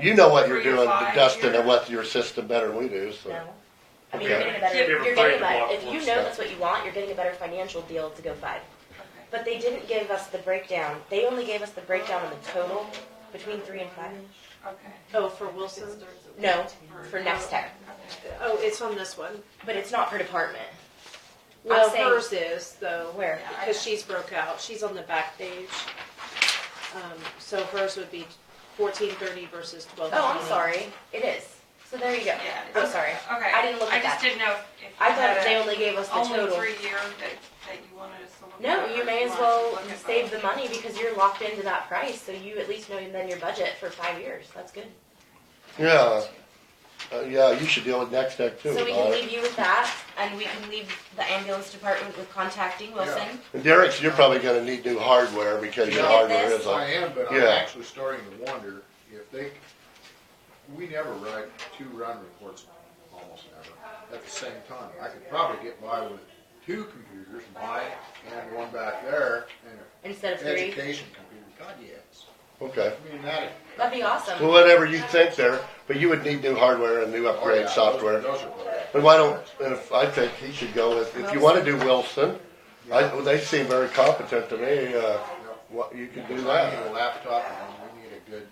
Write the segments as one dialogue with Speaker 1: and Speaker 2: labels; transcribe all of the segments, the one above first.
Speaker 1: You know what you're
Speaker 2: Three to
Speaker 1: doing,
Speaker 2: five
Speaker 1: Dustin, and
Speaker 2: years.
Speaker 1: what your system better than we do, so.
Speaker 3: No. I mean,
Speaker 1: Okay.
Speaker 3: you're getting a better,
Speaker 2: Give
Speaker 3: you're
Speaker 4: a
Speaker 3: getting a
Speaker 4: five block
Speaker 3: better, if you
Speaker 4: one
Speaker 3: know
Speaker 4: step.
Speaker 3: that's what you want, you're getting a better financial deal to go five.
Speaker 2: Okay.
Speaker 3: But they didn't give us the breakdown. They only gave us the breakdown on the total between three and five.
Speaker 2: Okay.
Speaker 5: Oh, for Wilson?
Speaker 3: No, for next tech,
Speaker 5: Oh, it's on this one.
Speaker 3: but it's not per department.
Speaker 5: Well,
Speaker 3: saying-
Speaker 5: hers is though.
Speaker 3: Where?
Speaker 5: Because she's broke out. She's on the back page. Um, so hers would be fourteen thirty versus twelve.
Speaker 3: Oh, I'm sorry. It is. So there you go.
Speaker 2: Yeah.
Speaker 3: I'm sorry.
Speaker 2: Okay.
Speaker 3: I didn't look at
Speaker 2: I just
Speaker 3: that.
Speaker 2: didn't know if. if
Speaker 3: I
Speaker 2: you had
Speaker 3: thought they
Speaker 2: a
Speaker 3: only gave us the
Speaker 2: Only
Speaker 3: total.
Speaker 2: three year that, that you wanted us to look at.
Speaker 3: No,
Speaker 2: or
Speaker 3: you may as
Speaker 2: wanted to
Speaker 3: well
Speaker 2: look at
Speaker 3: save the
Speaker 2: both.
Speaker 3: money because you're locked into that price, so you at least know then your budget for five years. That's good.
Speaker 1: Yeah, uh, yeah, you should deal with Next Tech too.
Speaker 3: So we
Speaker 1: about
Speaker 3: can
Speaker 1: it.
Speaker 3: leave you with that, and we can leave the ambulance department with contacting Wilson.
Speaker 1: And Derek, you're probably gonna need new hardware because your
Speaker 6: Yeah.
Speaker 1: hardware
Speaker 3: This?
Speaker 1: is
Speaker 6: I
Speaker 1: on.
Speaker 6: am, but I'm
Speaker 1: Yeah.
Speaker 6: actually starting to wonder if they, we never write two run reports, almost never, at the same time. I could probably get by with two computers, mine and one back there, and
Speaker 3: Instead of
Speaker 6: an
Speaker 3: three,
Speaker 6: education computer, God, yes.
Speaker 1: Okay,
Speaker 6: I mean, that,
Speaker 3: that'd be
Speaker 1: well,
Speaker 3: awesome.
Speaker 1: whatever you think there, but you would need new hardware and new
Speaker 6: oh, yeah,
Speaker 1: upgrade
Speaker 6: those-
Speaker 1: software.
Speaker 6: Those are, both.
Speaker 1: But why don't, and if, I think he should go with, if you wanna do Wilson, I, well, they seem very competent to me, uh, what, you can do
Speaker 6: because I need
Speaker 1: that.
Speaker 6: a laptop and we need a good,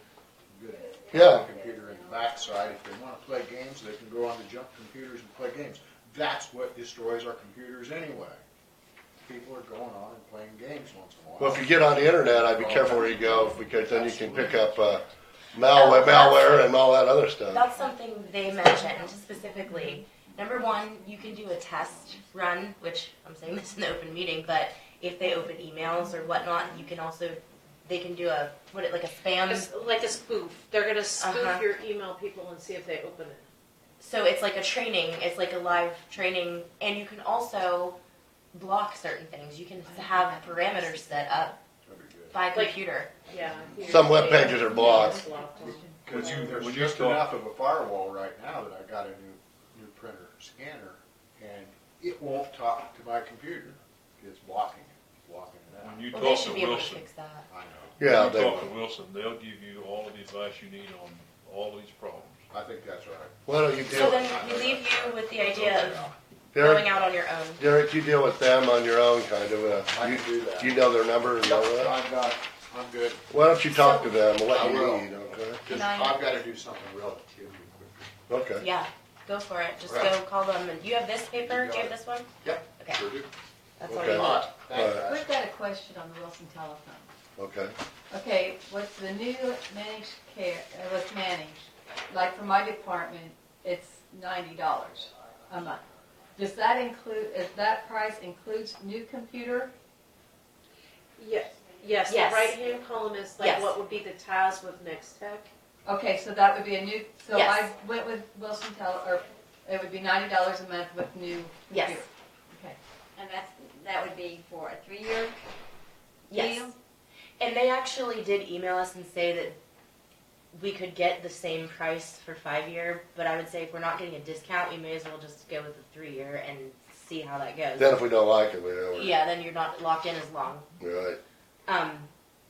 Speaker 6: good
Speaker 1: Yeah.
Speaker 6: computer in the backside. If they wanna play games, they can go on the jump computers and play games. That's what destroys our computers anyway. People are going on and playing games once in a while.
Speaker 1: Well, if you get on the internet, I'd be careful where you go, because then you can pick up, uh, malware, malware and all that other stuff.
Speaker 3: That's something they mentioned specifically. Number one, you can do a test run, which I'm saying this in the open meeting, but if they open emails or whatnot, you can also, they can do a, what, it like a spam?
Speaker 5: It's like a spoof. They're gonna spoof
Speaker 3: Uh-huh.
Speaker 5: your email people and see if they open it.
Speaker 3: So it's like a training, it's like a live training, and you can also block certain things. You can have parameters set up
Speaker 6: That'd be good.
Speaker 3: by
Speaker 5: Like-
Speaker 3: computer.
Speaker 5: Yeah.
Speaker 1: Some web pages are blocked.
Speaker 5: It's blocked.
Speaker 6: Cause you, there's
Speaker 4: when you
Speaker 6: just
Speaker 4: go-
Speaker 6: enough of a firewall right now that I got a new, new printer scanner and it won't talk to my computer. It's blocking it, blocking it out.
Speaker 4: When you
Speaker 3: Well, they
Speaker 4: talk to
Speaker 3: should be able to
Speaker 4: Wilson,
Speaker 3: fix that.
Speaker 6: I know.
Speaker 1: Yeah,
Speaker 4: you
Speaker 1: they
Speaker 4: talk to Wilson, they'll give you all the advice you need on all these problems.
Speaker 6: I think that's right.
Speaker 1: Why don't you deal
Speaker 3: So
Speaker 1: with,
Speaker 3: then we leave you with the idea of going
Speaker 1: Derek,
Speaker 3: out on your own.
Speaker 1: Derek, you deal with them on your own, kind of, uh,
Speaker 6: I
Speaker 1: you,
Speaker 6: can do that.
Speaker 1: you know their number and all that.
Speaker 6: I'm not, I'm good.
Speaker 1: Why don't you talk to them and
Speaker 6: I
Speaker 1: what you
Speaker 6: will.
Speaker 1: need, okay?
Speaker 6: Cause
Speaker 3: I-
Speaker 6: I've gotta do something relatively quick.
Speaker 1: Okay,
Speaker 3: Yeah, go for it. Just
Speaker 6: Right.
Speaker 3: go call them. And you have this paper? Do you have this one?
Speaker 6: Yep.
Speaker 3: Okay.
Speaker 6: Sure do.
Speaker 3: That's all
Speaker 1: Okay.
Speaker 3: you need.
Speaker 6: Alright, thanks,
Speaker 1: Alright.
Speaker 6: guys.
Speaker 7: We've got a question on the Wilson telephone.
Speaker 1: okay.
Speaker 7: Okay, with the new managed care, uh, with managed, like for my department, it's ninety dollars a month. Does that include, is that price includes new computer?
Speaker 5: Yes, yes, the
Speaker 3: Yes.
Speaker 5: right-hand column is like
Speaker 3: Yes.
Speaker 5: what would be the TAS with Next Tech.
Speaker 7: Okay, so that would be a new, so I
Speaker 3: Yes.
Speaker 7: went with Wilson Tel, or it would be ninety dollars a month with new
Speaker 3: Yes.
Speaker 7: computer.
Speaker 8: And that's, that would be for a three-year
Speaker 3: Yes.
Speaker 8: deal?
Speaker 3: And they actually did email us and say that we could get the same price for five year, but I would say if we're not getting a discount, we may as well just go with the three year and see how that goes.
Speaker 1: Then if we don't like it, we don't.
Speaker 3: yeah, then you're not locked in as long.
Speaker 1: Right.
Speaker 3: Um,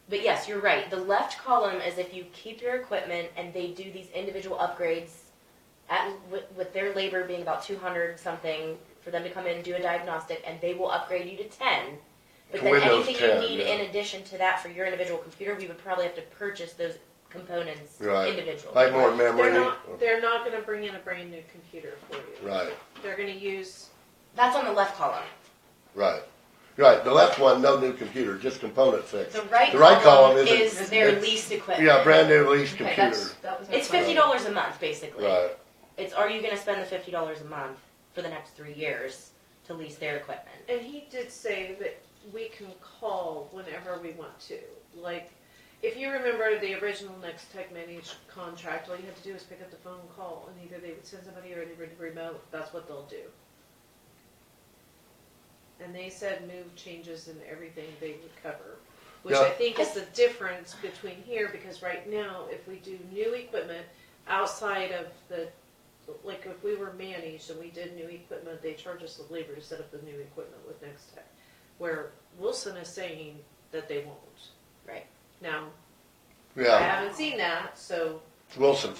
Speaker 3: but yes, you're right. The left column is if you keep your equipment and they do these individual upgrades at, with, with their labor being about 200 something for them to come in and do a diagnostic and they will upgrade you to 10. But
Speaker 1: To
Speaker 3: then
Speaker 1: Windows
Speaker 3: anything
Speaker 1: 10,
Speaker 3: you need
Speaker 1: yeah.
Speaker 3: in addition to that for your individual computer, we would probably have to purchase those components
Speaker 1: Right.
Speaker 3: individually.
Speaker 1: Like more
Speaker 5: They're
Speaker 1: memory.
Speaker 5: not, they're not gonna bring in a brand-new computer for you.
Speaker 1: Right,
Speaker 5: They're gonna use
Speaker 3: That's on the left column.
Speaker 1: right, right. The left one, no new computer, just component fix.
Speaker 3: The right,
Speaker 1: The right column
Speaker 3: column
Speaker 1: isn't-
Speaker 3: is their
Speaker 1: it's-
Speaker 3: leased equipment.
Speaker 1: Yeah, brand new lease
Speaker 7: Okay,
Speaker 1: computer.
Speaker 7: that's, that was. my
Speaker 3: It's
Speaker 7: question.
Speaker 3: fifty dollars a month, basically.
Speaker 1: Right.
Speaker 3: It's are you going to spend the fifty dollars a month for the next three years to lease their equipment?
Speaker 5: And he did say that we can call whenever we want to. Like, if you remember the original Next Tech Managed contract, all you had to do was pick up the phone and call, and either they would send somebody or they would remote. That's what they'll do. And they said move changes and everything they would cover, which I
Speaker 1: Yeah.
Speaker 5: think is the difference between here because right now, if we do new equipment outside of the like if we were managed and we did new equipment, they charge us the labor to set up the new equipment with Next Tech. Where Wilson is saying that they won't.
Speaker 3: Right.
Speaker 5: Now, I
Speaker 1: Yeah,
Speaker 5: haven't seen that, so
Speaker 1: Wilson,